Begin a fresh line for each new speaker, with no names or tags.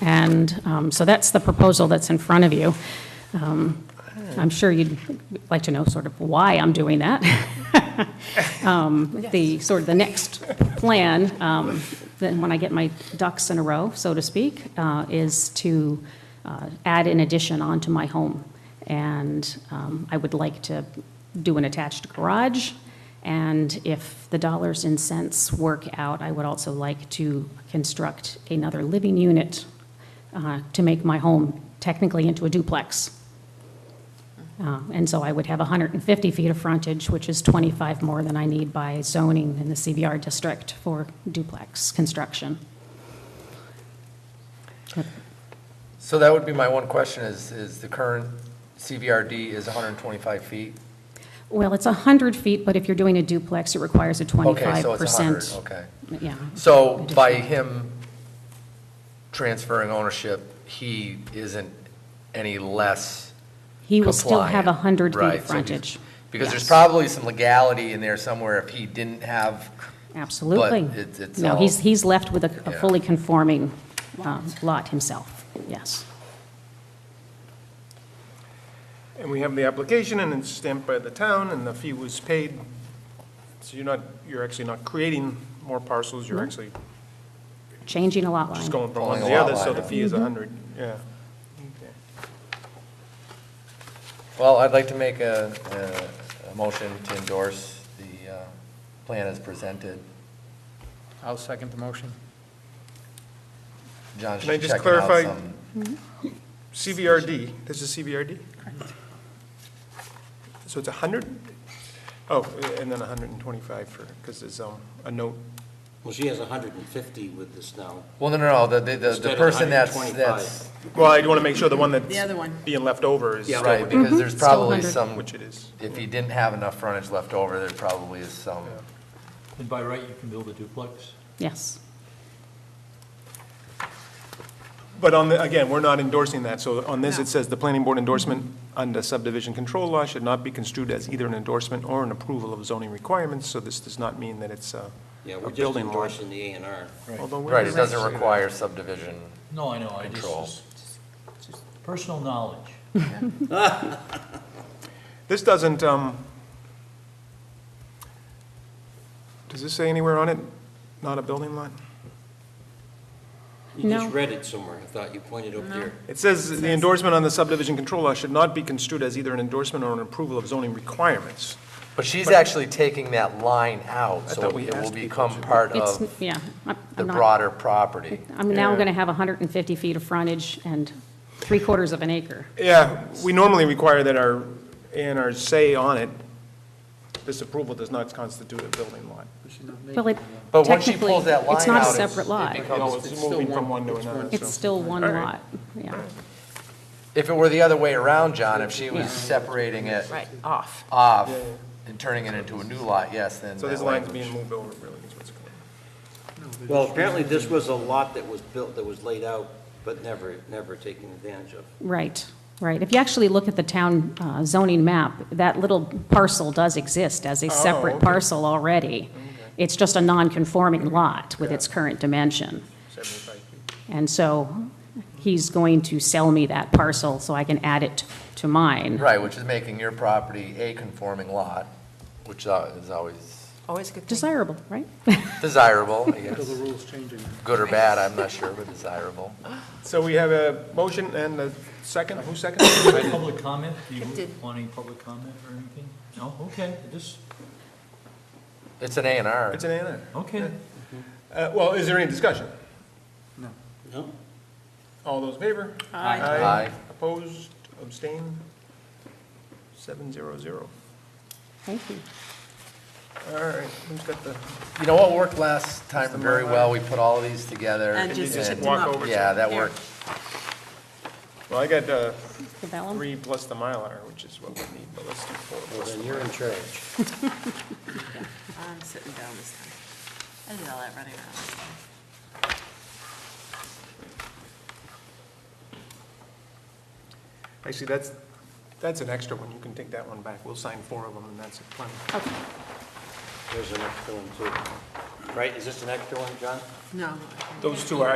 And um, so that's the proposal that's in front of you. Um, I'm sure you'd like to know sort of why I'm doing that. Um, The, sort of the next plan, um, then when I get my ducks in a row, so to speak, uh, is to uh, add an addition onto my home. And um, I would like to do an attached garage. And if the dollars and cents work out, I would also like to construct another living unit uh, to make my home technically into a duplex. Uh, And so I would have 150 feet of frontage, which is 25 more than I need by zoning in the CBR district for duplex construction.
So that would be my one question is, is the current CVRD is 125 feet?
Well, it's 100 feet, but if you're doing a duplex, it requires a 25%.
Okay, so it's 100, okay.
Yeah.
So by him transferring ownership, he isn't any less
He will still have
compliant,
100 feet
right,
of
so he's-
frontage.
Because there's
Yes.
probably some legality in there somewhere if he didn't have,
Absolutely.
But it's- it's
No,
all-
he's, he's left with a- a
Yeah.
fully conforming um, lot himself, yes.
And we have the application, and it's stamped by the town, and the fee was paid. So you're not, you're actually not creating more parcels, you're actually
Changing a lot
just
line.
going from one to
Pulling
the
a lot
other, so
line
the
up.
fee is a hundred, yeah. Okay.
well, I'd like to make a, a- a motion to endorse the uh, plan as presented.
I'll second the motion.
John's
Can I
just
just
checking out
clarify-
some.
CVRD, this is CVRD? So it's a hundred? Oh, and then a hundred and twenty-five for, because there's, um, a note.
Well, she has 150 with this now.
Well, no, no, no, the, the- the,
instead
the
of
person that's,
125.
that's,
Well, I want to make sure the one that's.
The other one.
Being left over is. still
right,
with-
because there's
Still
probably
100.
some,
Which it is.
if he didn't have enough frontage left over, there probably is some.
And by right, you can build a duplex?
Yes,
But on the, again, we're not endorsing that, so on this,
No.
it says the planning board endorsement under subdivision control law should not be construed as either an endorsement or an approval of zoning requirements, so this does not mean that it's a
Yeah,
a
we're just
building endorsement.
endorsing the A and R.
Right, it doesn't require subdivision.
No, I know, I just-
Control.
just, just personal knowledge.
This doesn't, um, does this say anywhere on it, not a building lot?
You
No.
just read it somewhere, I thought you pointed up there.
It says the endorsement on the subdivision control law should not be construed as either an endorsement or an approval of zoning requirements.
But she's actually taking that line out,
I
so
thought we
it will
asked people
become
to-
part
it's,
of
yeah. I'm-
Uh, the
I'm not-
broader property.
I'm now
Yeah.
going to have 150 feet of frontage and three quarters of an acre.
Yeah, we normally require that our, and our say on it, this approval does not constitute a building lot.
Well, it
But once she
technically,
pulls that line
It's not a
out, it's-
separate lot.
No, it's moving from one to another,
It's
so-
still one
All right.
lot, yeah.
If it were the other way around, John, if she was separating it
Right, off.
off and turning it into a new lot, yes, then
So
that
this line's
language.
being moved over, really, is what's going on.
Well, apparently this was a lot that was built, that was laid out, but never, never taken advantage of.
Right, right. If you actually look at the town uh, zoning map, that little parcel does exist
Oh,
as a separate
okay.
parcel already. It's just a non-conforming lot with its current dimension.
Seventy-five feet.
And so he's going to sell me that parcel so I can add it to mine.
Right, which is making your property a conforming lot, which uh, is always
Always a good thing.
Desirable, right?
desirable, I guess.
Until the rules change in
Good or bad, I'm not sure, but desirable.
So we have a motion and a second, who's second?
Public comment, do
It
you
did.
want any public comment or anything? No, okay, just,
It's an A and R.
It's an A and
okay.
R. Uh, well, is there any discussion?
No?
All those in favor?
Aye.
Aye.
Opposed, abstained? Seven zero zero.
Thank you.
All right, who's got the,
You know what worked last time very well? We put all these together.
And just
just
tipped them
walk
up.
over to-
Yeah, that
There.
worked.
well, I got, uh,
The vellum?
three plus the Mylar, which is what we need, but let's do four.
Well, then you're in charge.
I'm sitting down this time. I did all that running around.
Actually, that's, that's an extra one, you can take that one back, we'll sign four of them, and that's plenty.
There's an extra one too. Right, is this an extra one, John?
No. I can't.
Those two are